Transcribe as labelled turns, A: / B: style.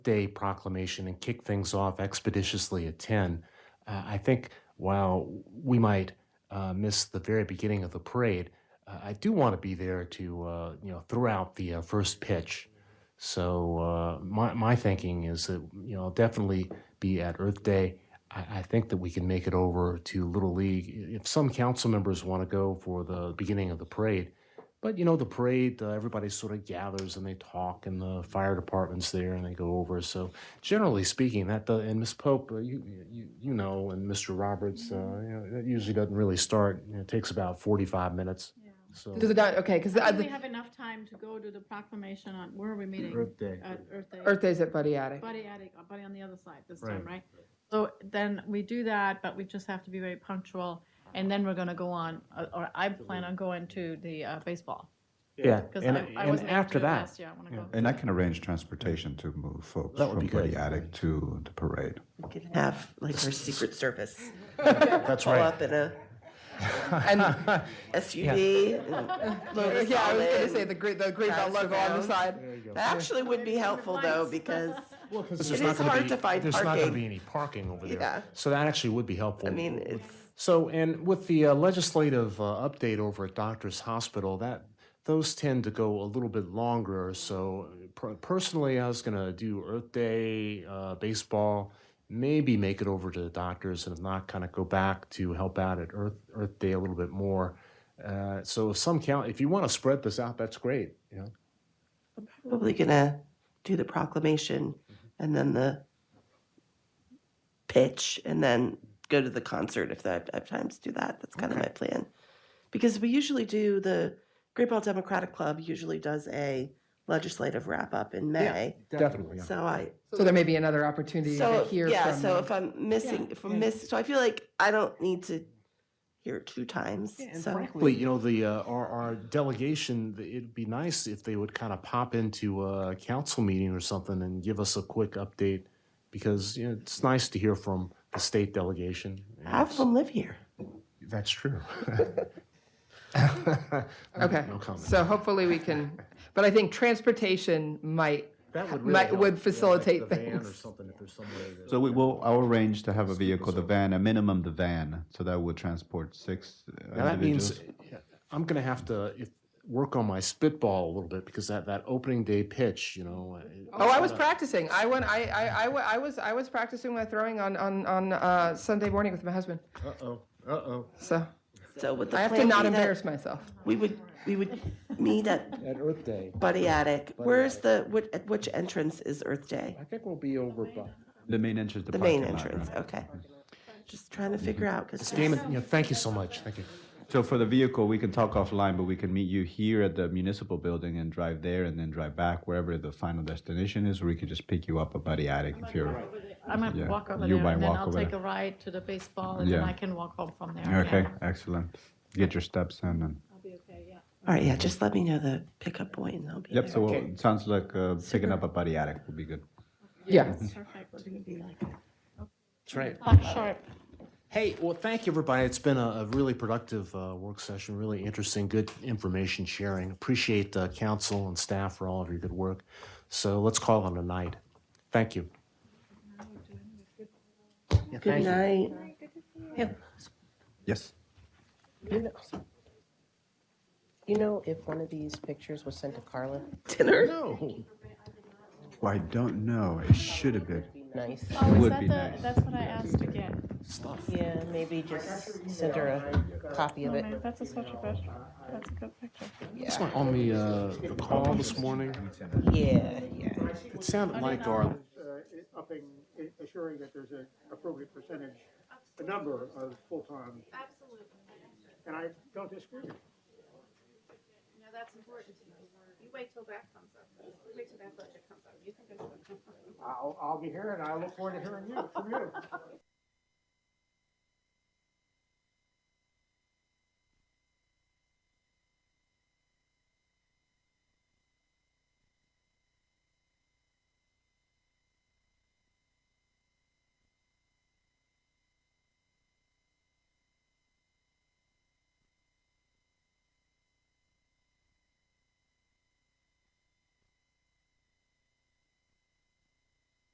A: Day proclamation and kick things off expeditiously at 10, uh, I think while we might uh, miss the very beginning of the parade, uh, I do want to be there to uh, you know throw out the uh, first pitch. So uh, my my thinking is that you know I'll definitely be at Earth Day. I, I think that we can make it over to Little League if some council members want to go for the beginning of the parade. But you know the parade, uh, everybody sort of gathers and they talk, and the fire department's there and they go over. So generally speaking, that does, and Miss Pope, uh, you, you you know, and Mr. Roberts, uh, you know, that usually doesn't really start. You know, it takes about forty-five minutes.
B: Yeah.
A: So
C: Does it not, okay, because
B: I think we
C: the
B: have enough time to go to the proclamation on, where are we meeting?
D: Earth Day.
B: At Earth Day.
C: Earth Day's at Buddy Attic.
B: Buddy attic, uh, buddy on the other side this time, right? So then we do that, but we just have to be very punctual. And then we're gonna go on, uh, or I plan on going to the uh, baseball.
A: yeah,
B: Because
A: and,
B: I, I
A: and
B: wasn't able to
A: after
B: do it
A: that,
B: last year, I wanna
A: yeah.
B: go.
D: And I can arrange transportation to move folks
A: That would
D: from
A: be good.
D: Buddy Attic to the parade.
E: We could have like our Secret Service
A: that's
E: pull
A: right.
E: up in a
C: And,
E: SUV. and load us
C: yeah, I
E: all
C: was going to
E: in.
C: say the great, the great belt
E: Pass
C: logo on the
E: around.
C: side.
E: That actually would be helpful though, because
A: Well, because
E: it is hard to find
A: There's not going to
E: parking.
A: be any parking over there.
E: Yeah.
A: So that actually would be helpful.
E: I mean, it's,
A: So, and with the uh, legislative uh, update over at Doctors Hospital, that those tend to go a little bit longer. So, per- personally, I was going to do Earth Day, uh, baseball, maybe make it over to the doctors, and if not, kind of go back to help out at Earth Earth Day a little bit more. Uh, so, if some count, if you want to spread this out, that's great. You know,
E: probably gonna do the proclamation and then the pitch and then go to the concert if I have- I have time to do that. That's kind of my plan. Because we usually do the Great Ball Democratic Club usually does a legislative wrap up in May.
A: definitely. Oh, yeah.
E: So I,
C: So there may be another opportunity to
E: so
C: hear
E: yeah,
C: from.
E: so if I'm missing, if I'm miss, so I feel like I don't need to hear it two times.
A: And
E: so
A: frankly, you know, the, uh, our, our delegation, th- it'd be nice if they would kind of pop into a council meeting or something and give us a quick update. Because, you know, it's nice to hear from the state delegation. and
E: half of
A: it's-
E: them live here.
A: That's true.
C: Okay,
A: No comment.
C: so hopefully we can, but I think transportation might,
A: That would
C: might-
A: really help.
C: would
A: Yeah, like the
C: facilitate
A: van Or
C: things.
A: something, if there's some way that-
D: So we will, I'll arrange to have a vehicle, the van, a minimum the van, so that would transport six uh,
A: Now, that means
D: individuals.
A: uh, I'm going to have to if, work on my spitball a little bit because that, that opening day pitch, you know. uh,
C: oh, I was practicing. I went, I, I, I, wa- I was, I was practicing my throwing on, on, on, uh, Sunday morning with my husband.
A: Uh-oh, uh-oh.
C: So
E: So with the
C: I have to
E: plan
C: not
E: be that
C: embarrass myself.
E: We would we would meet at
A: At Earth Day,
E: Buddy Attic. Where's the what, at which entrance is Earth Day?
A: I think we'll be over by.
D: The main entrance, the
E: The main
D: parking lot, right?
E: entrance. Okay. Just trying to figure out because
A: Damon, yeah, thank you so much. Thank you.
D: So for the vehicle, we can talk offline, but we can meet you here at the municipal building and drive there and then drive back wherever the final destination is, or we could just pick you up at Buddy Attic if you're,
B: I might
D: Yeah,
B: walk over
D: you
B: there
D: might
B: and then
D: walk
B: I'll
D: over
B: take a
D: there.
B: ride to the baseball and then
D: Yeah.
B: I can walk home from there.
D: okay,
B: Yeah,
D: excellent. Get your steps in and,
B: I'll be okay, yeah.
E: all right, yeah. Just let me know the pickup point, and I'll be
D: yep,
E: there.
D: so it sounds like uh, picking up at Buddy Attic will be good.
C: Yeah.
B: Perfect.
A: That's right.
B: Clock sharp.
A: Hey, well, thank you, everybody. It's been a, a really productive uh, work session, really interesting, good information sharing. Appreciate uh, council and staff for all of your good work. So let's call it a night. Thank you. Yeah,
E: Good
A: thank you.
E: night.
D: Yes.
F: You know, if one of these pictures was sent to Carla,
E: Dinner.
A: No.
D: Well, I don't know, it should have been.
F: nice.
B: Oh, is
D: would
B: that
D: be
B: the-
D: nice.
B: That's what I asked to get.
F: Yeah, maybe just send her a copy of it.
B: Maybe That's a such a good, that's a good picture.
A: That's why on the, uh, the call this morning,
F: Yeah, yeah.
A: it sounded like our
G: uh, upping, assuring that there's an appropriate percentage, a number of full-time. Absolutely. And I don't disagree with you.
H: No, that's important to know. You wait till that comes up. You Wait till that budget comes up. You think it's.
G: I'll, I'll be here and I look forward to hearing you, from you.